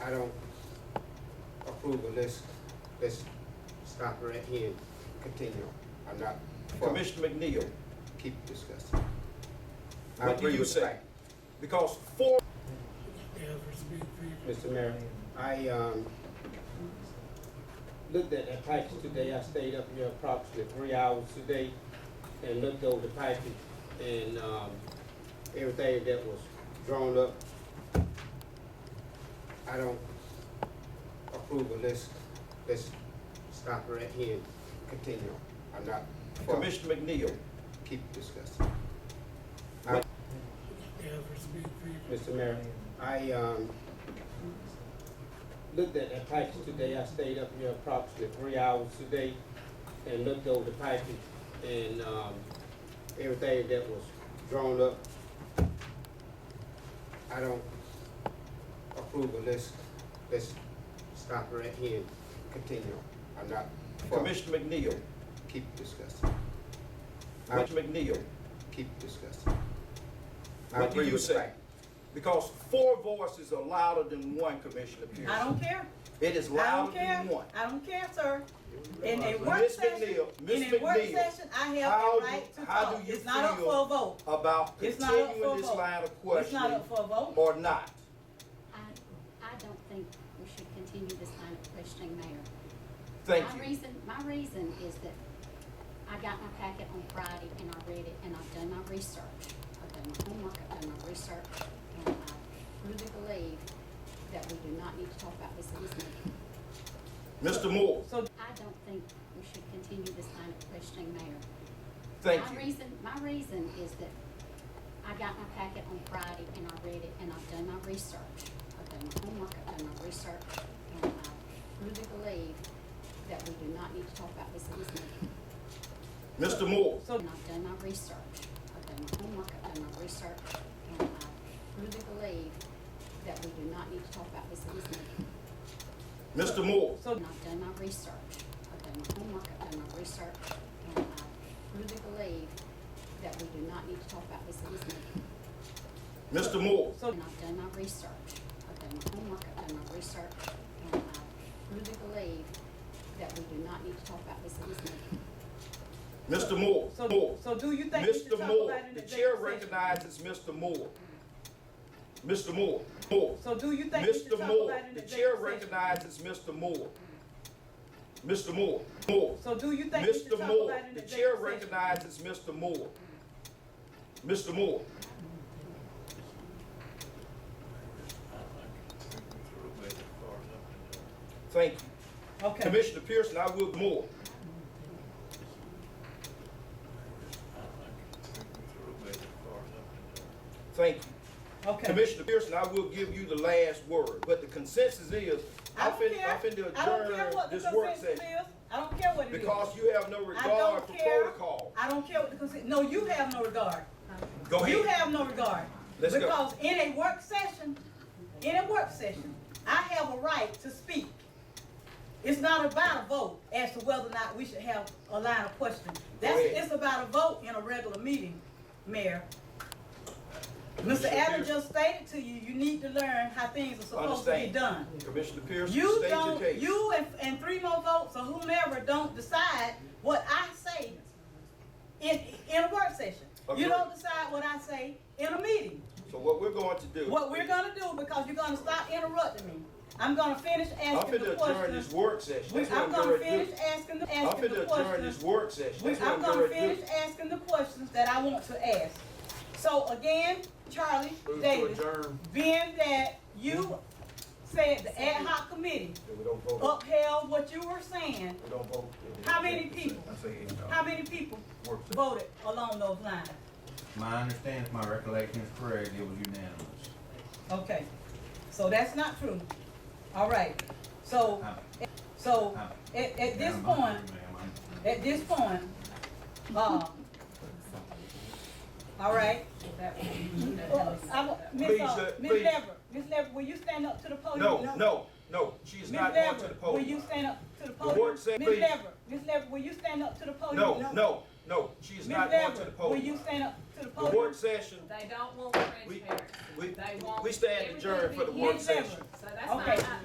I don't approve of this. Let's stop right here and continue. I'm not for- Commissioner McNeil, keep discussing. I what do agree you with say? Frank. Because four, Mr. Mayor, I, um, looked at that package today, I stayed up here approximately three hours today and looked over the package and, um, everything that was drawn up. I don't approve of this, let's stop right here and continue. I'm not for, Commissioner McNeil, keep discussing. I- Mr. Mayor, I, um, looked at that package today, I stayed up here approximately three hours today and looked over the package and, um, everything that was drawn up. I don't approve of this, let's stop right here and continue. I'm not for, Commissioner McNeil, keep discussing. I Commissioner McNeil, keep discussing. I what do agree you with say? Frank. Because four voices are louder than one, Commissioner Pearson. I don't care. It is I don't louder care. than one. Uh, I don't care, sir. In a work Miss session, McNeil, Miss in a work McNeil, session, I how have do- the right to how do talk. you It's not up feel for a vote. About It's not up for continuing a this vote. line of It's not questioning up for a vote. or not. I, I don't think we should continue this line of questioning, Mayor. Thank My you. reason, my reason is that I got my packet on Friday and I read it and I've done my research. I've done my homework, I've done my research, and I truly believe that we do not need to talk about this in this meeting. Mr. Moore, So I don't think we should continue this line of questioning, Mayor. thank My you. reason, my reason is that I got my packet on Friday and I read it and I've done my research. I've done my homework, I've done my research, and I truly believe that we do not need to talk about this in this meeting. Mr. Moore, So- And I've done my research. I've done my homework, I've done my research, and I truly believe that we do not need to talk about this in this meeting. Mr. Moore, So- And I've done my research. I've done my homework, I've done my research, and I truly believe that we do not need to talk about this in this meeting. Mr. Moore, So- And I've done my research. I've done my homework, I've done my research, and I truly believe that we do not need to talk about this in this meeting. Mr. Moore, Moore. So, so do you think we should Mr. talk Moore, about it in the executive chair session? recognizes Mr. Moore. Mr. Moore, Moore. So do you think we should talk Mr. about Moore, it in the chair executive session? recognizes Mr. Moore. Mr. Moore, Moore. So do you think we should Mr. talk about it in Moore, executive session? the chair recognizes Mr. Moore. Mr. Moore, thank you. Okay. Commissioner Pearson, I will Moore. Thank you. Okay. Commissioner Pearson, I will give you the last word, but the consensus is, I I'm don't finna, I'm care. finna I don't care adjourn what the this work consensus is. session. I don't care what it is. Because you have no I don't regard for care. protocol. I don't care what the consensus, no, you have no regard. Go You ahead. have no regard. Let's go. Because in a work session, in a work session, I have a right to speak. It's not about a vote as to whether or not we should have a line of questioning. That's, Go ahead. it's about a vote in a regular meeting, Mayor. Mr. Mr. Allen Pierce. just stated to you, you need to learn how things are supposed to be Understand. done. Commissioner Pearson, You state your don't, case. you and, and three more votes or whomever don't decide what I say in, in a work session. Agreed. You don't decide what I say in a meeting. So what we're going to do. What we're gonna do, because you're gonna stop interrupting me, I'm gonna finish I'm asking the finna adjourn this questions. work session. We- That's what I'm gonna do. finish asking, the I'm asking the finna adjourn this questions. work session. We- That's what I'm gonna do. finish asking the questions that I want to ask. So again, Charlie, Davis, being that you said the ad hoc committee We don't vote. upheld what you were saying, We don't vote. Oh. How many people? I say, How many people Works. voted along those lines? My understanding, if my recollection is correct, it was unanimous. Okay, so that's not true. All right, so, Uh, so, uh, at, at this ma'am, I'm point, sorry, ma'am, I'm- at this point, uh, all right. Uh, I wa- Miss, Please, uh, let- Miss please. Lever, Miss Lever, will Oh, you stand up to the podium? No, no, no, she is Miss not going to Lever, the will podium. you stand up to the podium? board Miss said please. Lever, Miss Lever, will oh, you stand up to the podium? No, no, no, she is Miss not going to Lever, the will podium. you stand up to the The podium? work session, They don't want we, transparency. we, They want. we stand everything adjourned to for the be work hidden. Miss Lever, session. So that's Okay. not,